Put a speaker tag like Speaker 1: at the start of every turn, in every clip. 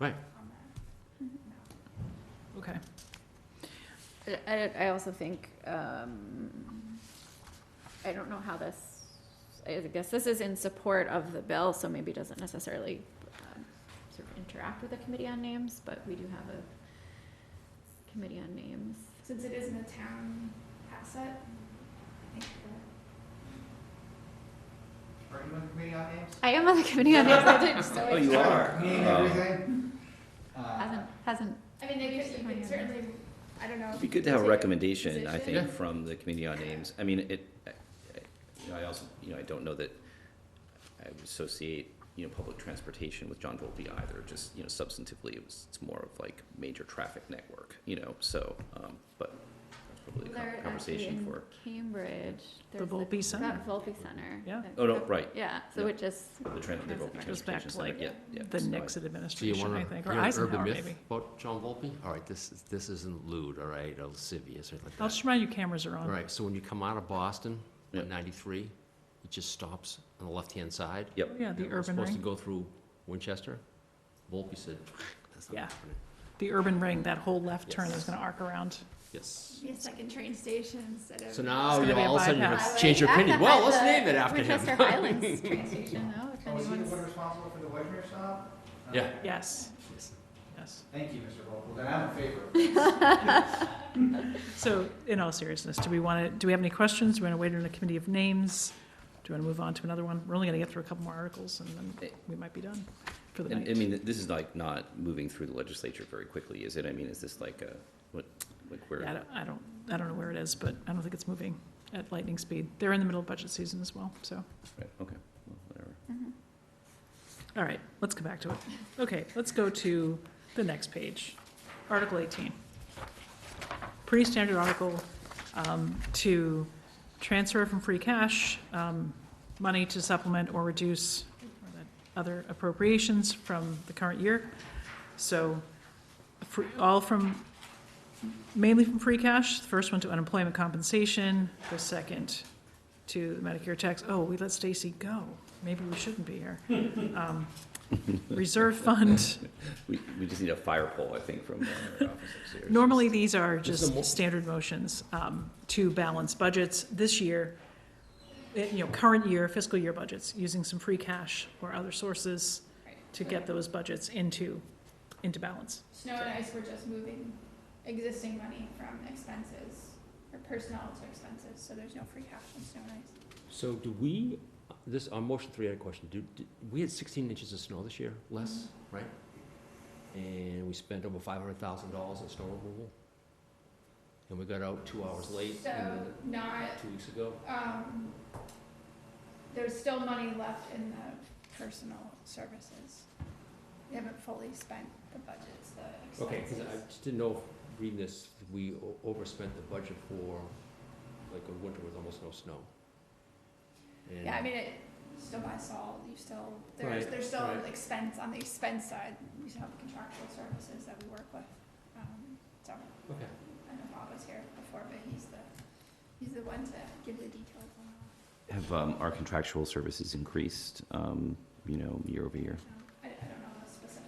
Speaker 1: Right.
Speaker 2: Mm-hmm.
Speaker 3: Okay.
Speaker 4: I- I, I also think, um, I don't know how this, I guess this is in support of the bill, so maybe doesn't necessarily um, sort of interact with the committee on names, but we do have a committee on names.
Speaker 2: Since it isn't a town asset, I think that.
Speaker 5: Are you on committee on names?
Speaker 4: I am on the committee on names, I didn't, so
Speaker 1: Oh, you
Speaker 4: it
Speaker 1: are?
Speaker 5: Me and
Speaker 1: Oh.
Speaker 5: everything?
Speaker 4: hasn't,
Speaker 5: Uh,
Speaker 4: hasn't,
Speaker 2: I mean, they could, you
Speaker 4: Fine,
Speaker 2: could
Speaker 4: yeah.
Speaker 2: certainly, I don't know.
Speaker 1: It'd be good to have a
Speaker 2: take
Speaker 1: recommendation, I
Speaker 2: position.
Speaker 1: think, from the committee on names. I mean, it, I- I- you know, I also, you know, I don't know that I would associate, you know, public transportation with John Volpe either, just, you know, substantively, it was, it's more of like major traffic network, you know, so, um, but that's probably a
Speaker 4: there
Speaker 1: con-
Speaker 4: actually
Speaker 1: conversation
Speaker 4: in
Speaker 1: for.
Speaker 4: Cambridge.
Speaker 3: The
Speaker 4: there's a-
Speaker 3: Volpe Center.
Speaker 4: That Volpe Center.
Speaker 3: Yeah.
Speaker 4: that-
Speaker 1: Oh, no, right,
Speaker 4: Yeah, so
Speaker 1: Yeah.
Speaker 4: it just,
Speaker 1: the trans, the Volpe
Speaker 3: Goes back
Speaker 1: Transportation
Speaker 3: to
Speaker 1: Center,
Speaker 3: like
Speaker 1: yeah, yeah.
Speaker 3: The
Speaker 1: so I-
Speaker 3: Nixon
Speaker 6: Do you
Speaker 3: administration,
Speaker 6: want
Speaker 3: I
Speaker 6: to
Speaker 3: think,
Speaker 6: hear
Speaker 3: or
Speaker 6: an urban
Speaker 3: Eisenhower
Speaker 6: myth
Speaker 3: maybe.
Speaker 6: about John Volpe? All right, this, is- this isn't lewd, all right, or lascivious or like
Speaker 3: I'll just
Speaker 6: that.
Speaker 3: remind you cameras are
Speaker 6: All
Speaker 3: on.
Speaker 6: right, so when you come out of Boston
Speaker 1: Yeah.
Speaker 6: on 93, it just stops on the left-hand side.
Speaker 1: Yep.
Speaker 3: Yeah, the
Speaker 6: We're
Speaker 3: urban
Speaker 6: supposed to
Speaker 3: ring,
Speaker 6: go through Winchester. Volpe said, that's not
Speaker 3: Yeah.
Speaker 6: happening.
Speaker 3: the urban ring, that whole left turn
Speaker 6: Yes.
Speaker 3: is gonna arc around.
Speaker 6: Yes.
Speaker 2: Be a second train station instead of.
Speaker 6: So now
Speaker 3: gonna
Speaker 6: you
Speaker 3: be a
Speaker 6: all of a sudden you're going
Speaker 3: bypass.
Speaker 6: to change your opinion. Well, let's name it after him.
Speaker 4: Winchester Highlands train station, though,
Speaker 2: Oh,
Speaker 4: if
Speaker 5: So is he the
Speaker 4: anyone's-
Speaker 5: one responsible for the Wagner stop? Uh,
Speaker 6: Yeah.
Speaker 3: Yes, yes.
Speaker 5: Thank you, Mr. Volkel, then I'm in favor.
Speaker 3: So, in all seriousness, do we want to, do we have any questions? Do we want to wait on a committee of names? Do we want to move on to another one? We're only going to get through a couple more articles, and then we might be done for the
Speaker 1: And, I
Speaker 3: night.
Speaker 1: mean, this is like not moving through the legislature very quickly, is it? I mean, is this like a, what, like where?
Speaker 3: Yeah, I don't- I don't, I don't know where it is, but I don't think it's moving at lightning speed. They're in the middle of budget season as well, so.
Speaker 1: Right, okay, well, whatever.
Speaker 3: All right, let's come back to it. Okay, let's go to the next page, Article 18. Pretty standard article um, to transfer from free cash um, money to supplement or reduce other appropriations from the current year. So fr- all from, mainly from free cash, the first one to unemployment compensation, the second to Medicare tax. Oh, we let Stacy go. Maybe we shouldn't be here. Um, Reserve fund,
Speaker 1: We, we just need a fire pole, I think, from our office upstairs.
Speaker 3: normally these are
Speaker 6: mo-
Speaker 3: just standard motions um, to balance budgets. This year, eh, you know, current year fiscal year budgets, using some free cash or other sources to get those budgets into, into balance.
Speaker 2: Snow and ice, we're just moving existing money from expenses or personnel to expenses, so there's no free cash in snow and ice.
Speaker 6: So do we, this, on motion three, I had a question. Do, do- we had sixteen inches of snow this year, less, right? And we spent over five hundred thousand dollars on snow removal. And we got out two hours late
Speaker 2: So
Speaker 6: and
Speaker 2: not,
Speaker 6: two weeks ago.
Speaker 2: um, there's still money left in the personal services. We haven't fully spent the budgets, the
Speaker 6: Okay, because
Speaker 2: expenses.
Speaker 6: I just didn't know, if reading this, we o- overspent the budget for, like, a winter with almost no snow. And-
Speaker 2: Yeah, I mean, it, you still buy salt, you still, there's,
Speaker 6: Right,
Speaker 2: there's still
Speaker 6: right.
Speaker 2: expense, on the expense side, you still have contractual services that we work with. Um, so,
Speaker 6: Okay,
Speaker 2: I know Bob was here before, but he's the, he's the one to give the details on all.
Speaker 1: Have um, our contractual services increased, um, you know, year over year?
Speaker 2: Um, I, I don't know the specifics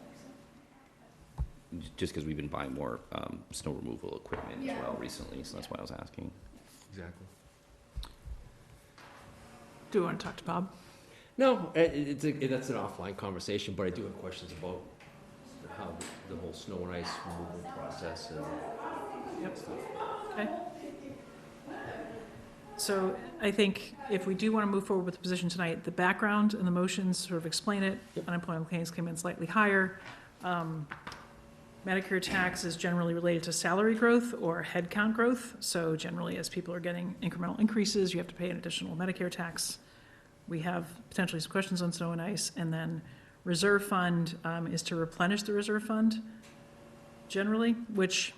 Speaker 2: of
Speaker 1: J- Just because we've been buying more um, snow removal equipment as
Speaker 2: Yeah.
Speaker 1: well recently, so that's why I was asking.
Speaker 6: exactly.
Speaker 3: Do we want to talk to Bob?
Speaker 6: No, i- i- it's, a- i- that's an offline conversation, but I do have questions about how the whole snow and ice removal process and.
Speaker 3: Yep. Okay. So I think if we do want to move forward with the position tonight, the background and the motions sort of explain it. Unemployment claims came in slightly higher. Um, Medicare tax is generally related to salary growth or headcount growth. So generally, as people are getting incremental increases, you have to pay an additional Medicare tax. We have potentially some questions on snow and ice. And then reserve fund um, is to replenish the reserve fund generally, which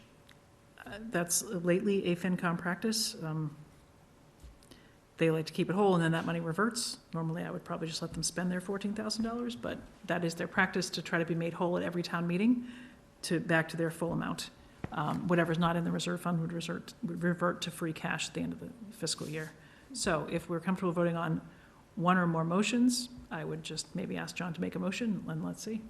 Speaker 3: uh, That's lately a FinCom practice. Um, They like to keep it whole, and then that money reverts. Normally, I would probably just let them spend their fourteen thousand dollars, but that is their practice to try to be made whole at every town meeting to, back to their full amount. Um, Whatever's not in the reserve fund would resort, would revert to free cash at the end of the fiscal year. So if we're comfortable voting on one or more motions, I would just maybe ask John to make a motion, and let's see.